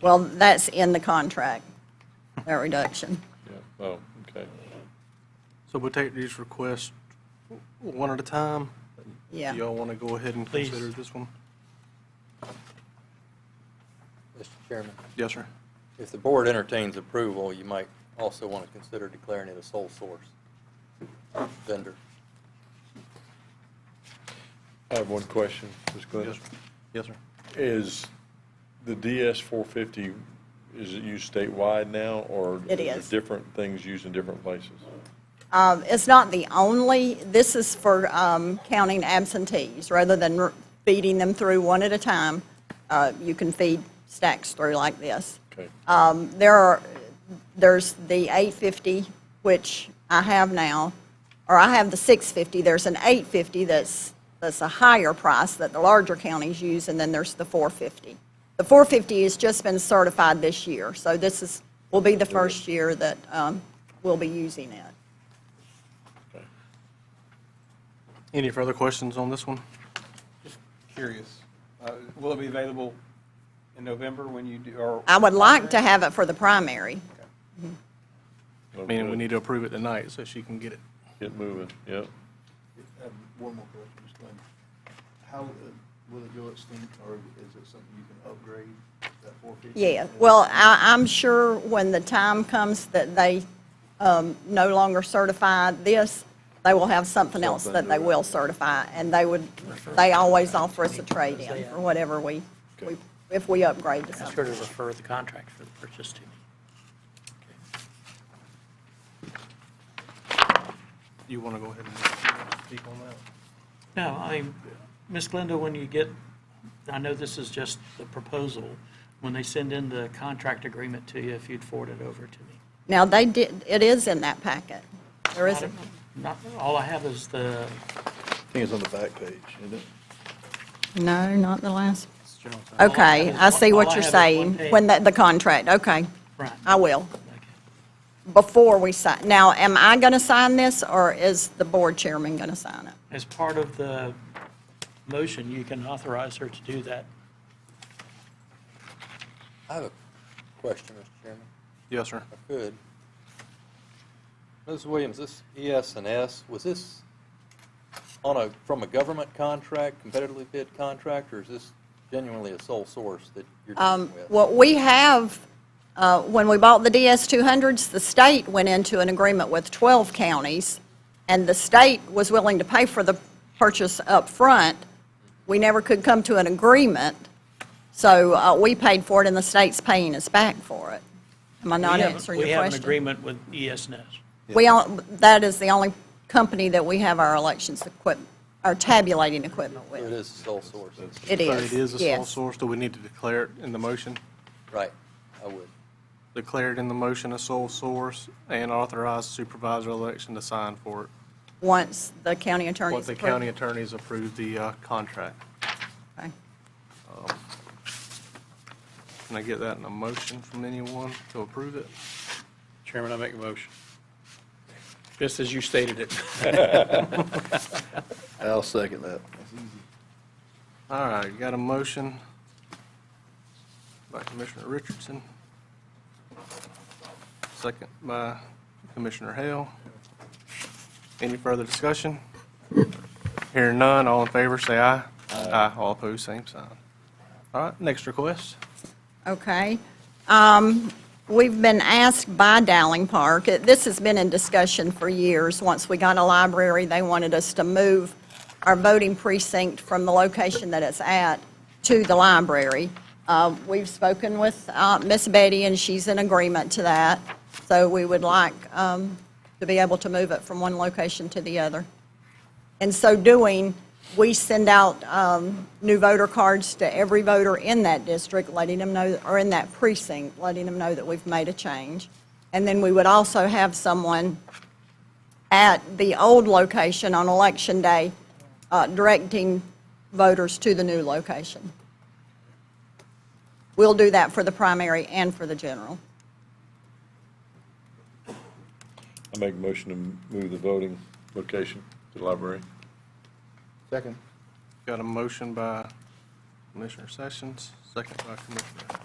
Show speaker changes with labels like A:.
A: Well, that's in the contract, that reduction.
B: Yeah, oh, okay.
C: So we'll take these requests one at a time. Do
A: Yeah.
C: y'all want to go ahead and
D: Please.
C: consider this one?
E: Mr. Chairman,
C: Yes, sir.
E: if the board entertains approval, you might also want to consider declaring it a sole source vendor.
B: I have one question, Ms. Glenn.
C: Yes, sir. Yes, sir.
B: Is the DS 450, is it used statewide now, or?
A: It
B: there
A: is.
B: Different things used in different places?
A: Um, It's not the only, this is for um, counting absentees, rather than r- feeding them through one at a time, uh, you can feed stacks through like this.
B: Okay.
A: Uh, There are, there's the 850, which I have now, or I have the 650, there's an 850 that's, that's a higher price that the larger counties use, and then there's the 450. The 450 has just been certified this year, so this is, will be the first year that um, we'll be using it.
B: Okay.
C: Any further questions on this one?
D: Curious. Uh, Will it be available in November when you do, or?
A: I would like to have it for the primary.
C: Meaning we need to approve it tonight so she can get it.
B: Get moving, yep.
F: I have One more question, Ms. Glenn. How, uh, will it go extinct, or is it something you can upgrade, that 450?
A: Yeah, well, I, I'm sure when the time comes that they um, no longer certify this, they will have something else that they will certify, and they would, they always offer us a trade-in for whatever we, we- if we upgrade to
G: Ask her to
A: something.
G: refer the contract for the purchase to me.
C: You want to go ahead and speak on that?
G: No, I mean, Ms. Glenda, when you get, I know this is just the proposal, when they send in the contract agreement to you, if you'd forward it over to me.
A: Now, they did, it is in that packet. There is, a-
G: Not, all I have is the,
F: I think it's on the back page, isn't it?
A: no, not the last.
G: all I
A: Okay,
G: have is
A: I
G: one-
A: see
G: all
A: what
G: I
A: you're
G: have is one
A: saying,
G: page.
A: when that, the contract, okay.
G: Right.
A: I will,
G: okay.
A: before we sign. Now, am I going to sign this, or is the board chairman going to sign it?
G: as part of the motion, you can authorize her to do that.
E: I have a question, Mr. Chairman,
C: Yes, sir.
E: if I could. Ms. Williams, this ES and S, was this on a, from a government contract, competitively bid contract, or is this genuinely a sole source that you're dealing with?
A: What we have, uh, when we bought the DS-200s, the state went into an agreement with 12 counties, and the state was willing to pay for the purchase up front. We never could come to an agreement, so uh, we paid for it, and the state's paying us back for it. Am I not
G: We have-
A: answering your
G: We have an
A: question?
G: agreement with E ESNS.
A: We all, that is the only company that we have our elections equipment, our tabulating equipment
E: So It
A: with.
E: is sole source,
A: It
C: So
A: is,
C: It is a sole
A: yes.
C: source. Do we need to declare it in the motion?
E: right, I would.
C: Declare it in the motion a sole source and authorize supervisor election to sign for it.
A: Once the county attorney's.
C: What the
A: approve-
C: county attorneys approved the uh, contract.
A: Okay.
C: Can I get that in a motion from anyone to approve it?
D: Chairman, I make a motion. Just as you stated it.
F: I'll second that.
C: All right, got a motion by Commissioner Richardson. Second by Commissioner Hale. Any further discussion? Hearing none, all in favor, say aye. Aye. All opposed, same sign. All right, next request.
A: Okay. Um, We've been asked by Dowling Park, it- this has been in discussion for years. Once we got a library, they wanted us to move our voting precinct from the location that it's at to the library. Uh, We've spoken with uh, Miss Betty, and she's in agreement to that. So we would like um, to be able to move it from one location to the other. In so doing, we send out um, new voter cards to every voter in that district, letting them know, or in that precinct, letting them know that we've made a change. And then we would also have someone at the old location on Election Day uh, directing voters to the new location. We'll do that for the primary and for the general.
B: I make a motion to move the voting location to the library.
F: Second.
C: Got a motion by Commissioner Sessions, second by Commissioner